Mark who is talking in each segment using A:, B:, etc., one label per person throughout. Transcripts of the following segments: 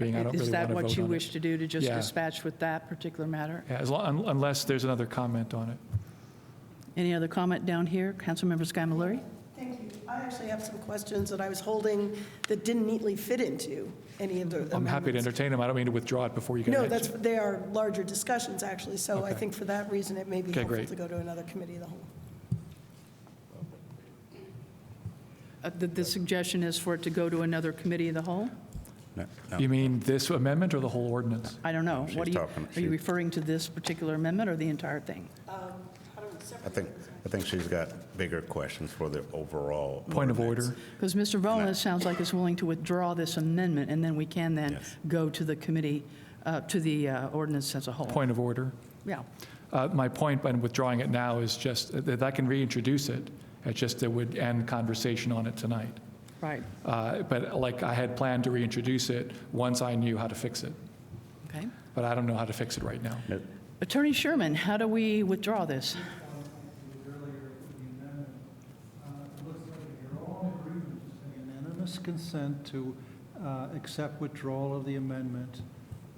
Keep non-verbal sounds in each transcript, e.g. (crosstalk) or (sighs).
A: being I don't
B: Is
A: really want
B: that
A: to
B: what you
A: vote on
B: wish
A: it.
B: to do, to just
A: Yeah.
B: dispatch with that particular matter?
A: Yeah, as long, unless there's another comment on it.
B: Any other comment down here? Councilmember Sky Mallory?
C: Thank you. I actually have some questions that I was holding that didn't neatly fit into any of the
A: I'm happy to
C: amendments.
A: entertain them. I don't mean to withdraw it before you can
C: No,
A: answer.
C: that's, they are larger discussions, actually, so I
A: Okay.
C: think for that reason, it may be
A: Okay,
C: helpful
A: great.
C: to go to another committee of the whole.
B: Uh, The, the suggestion is for it to go to another committee of the whole?
D: No, no.
A: You mean this amendment or the whole ordinance?
B: I don't know.
D: She's
B: What are you,
D: talking-
B: are you
D: she-
B: referring to this particular amendment or the entire thing?
D: I think, I think she's got bigger questions for the overall.
A: Point of
D: ordinance.
A: order.
B: Because Mr. Rowland sounds like is willing to withdraw this amendment, and then we can then
D: Yes.
B: go to the committee, uh, to the uh, ordinance as a whole.
A: Point of order.
B: Yeah.
A: Uh, My point by withdrawing it now is just that I can reintroduce it. It's just that would end conversation on it tonight.
B: Right.
A: Uh, But like I had planned to reintroduce it once I knew how to fix it.
B: Okay.
A: But I don't know how to fix it right now.
B: Attorney Sherman, how do we withdraw this?
E: earlier for the amendment, uh, it looks like you're all in agreement, it's a unanimous consent to uh, accept withdrawal of the amendment.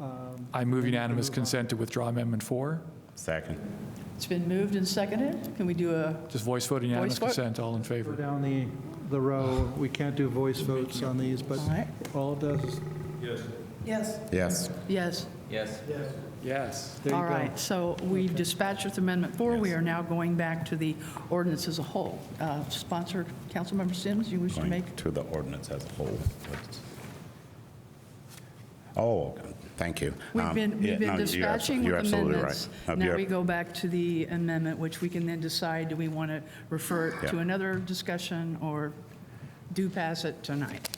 E: um,
A: I move
E: and
A: unanimous
E: move on.
A: consent to withdraw Amendment 4.
D: Second.
B: It's been moved and seconded. Can we do a,
A: Just voice vote unanimous
B: Voice vote.
A: consent, all in
E: Go
A: favor.
E: down the, the row, we can't do voice votes on these, but
B: All right.
E: all it does is,
C: Yes,
D: Yes.
B: yes?
A: Yes.
E: there you go.
B: All right, so we've dispatched with Amendment 4. We are now going back to the ordinance as a whole. Uh, Sponsor, Councilmember Sims, you wish to make?
D: To the ordinance as a whole. Oh, thank you.
B: We've
D: Um,
B: been,
D: yeah,
B: we've
D: no,
B: been
D: you're
B: dispatching
D: abso-
B: with
D: You're absolutely
B: amendments.
D: right.
B: Now
D: No, you're-
B: we go back to the amendment, which we can then decide, do we want to refer it to
D: Yeah.
B: another discussion or do pass it tonight?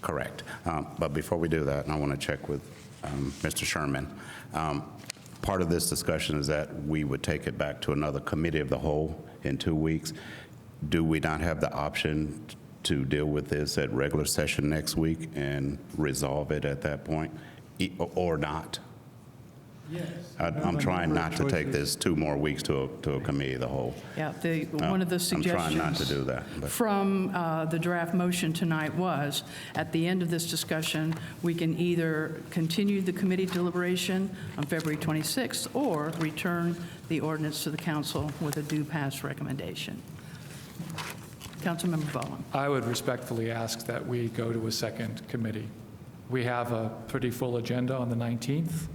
D: Correct. Um, But before we do that, and I want to check with um, Mr. Sherman, um, part of this discussion is that we would take it back to another committee of the whole in two weeks. Do we not have the option to deal with this at regular session next week and resolve it at that point, E- or not? Yes. I'm trying not to take this two more weeks to a to a committee of the whole.
B: Yeah, the, one of the
D: I'm
B: suggestions.
D: trying not to do that, but-
B: From uh, the draft motion tonight was, at the end of this discussion, we can either continue the committee deliberation on February 26th or return the ordinance to the council with a due pass recommendation. Councilmember Ballin.
A: I would respectfully ask that we go to a second committee. We have a pretty full agenda on the 19th.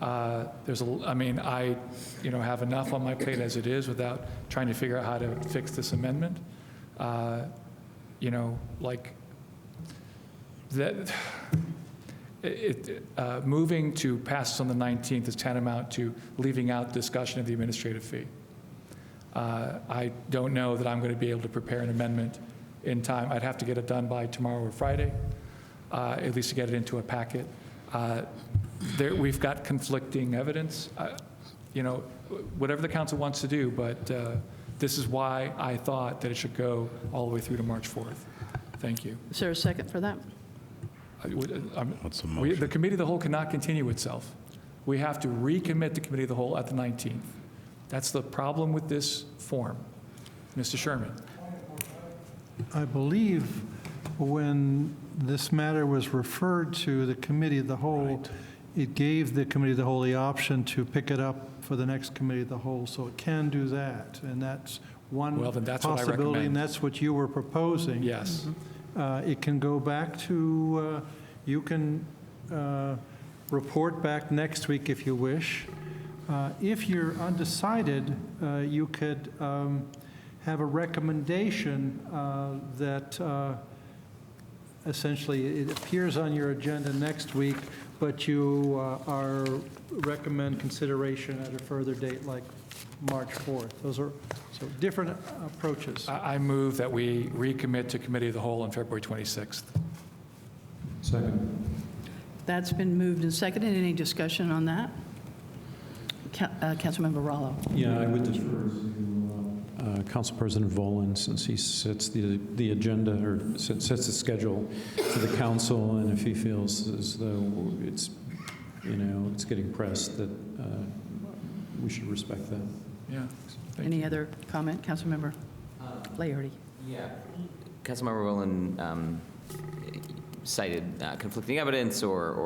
A: Uh, There's, a l- I mean, I, you know, have enough on my plate as it is without trying to figure out how to fix this amendment. Uh, You know, like, that, (sighs) it, it, uh, moving to pass this on the 19th is tantamount to leaving out discussion of the administrative fee. Uh, I don't know that I'm going to be able to prepare an amendment in time. I'd have to get it done by tomorrow or Friday, uh, at least to get it into a packet. Uh, There, we've got conflicting evidence. I- You know, whatever the council wants to do, but uh, this is why I thought that it should go all the way through to March 4th. Thank you.
B: Is there a second for that?
A: I would- I'm-
D: What's the
A: we- The
D: motion?
A: committee of the whole cannot continue itself. We have to recommit the committee of the whole at the 19th. That's the problem with this form. Mr. Sherman?
E: I believe when this matter was referred to the Committee of the Whole, it gave the Committee of the Whole the option to pick it up for the next Committee of the Whole, so it can do that, and that's one
A: Well, then that's what I
E: possibility,
A: recommend.
E: and that's what you were proposing.
A: Yes.
E: Uh, It can go back to, uh, you can uh, report back next week if you wish. Uh, If you're undecided, uh, you could um, have a recommendation uh, that uh, essentially it appears on your agenda next week, but you uh, are, recommend consideration at a further date, like March 4th. Those are, so different approaches.
A: I I move that we recommit to committee of the whole on February 26th.
B: That's been moved and seconded. Any discussion on that? Ca- uh, Councilmember Rallo.
F: Yeah, I would defer to uh, Council President Volin, since he sets the, the agenda, or se- sets the schedule for the council, and if he feels as though it's, you know, it's getting pressed, that uh, we should respect that.
A: Yeah. Thank
B: Any other comment? Councilmember Laerty.
G: Yeah. Councilmember Rowland um, cited uh, conflicting evidence or,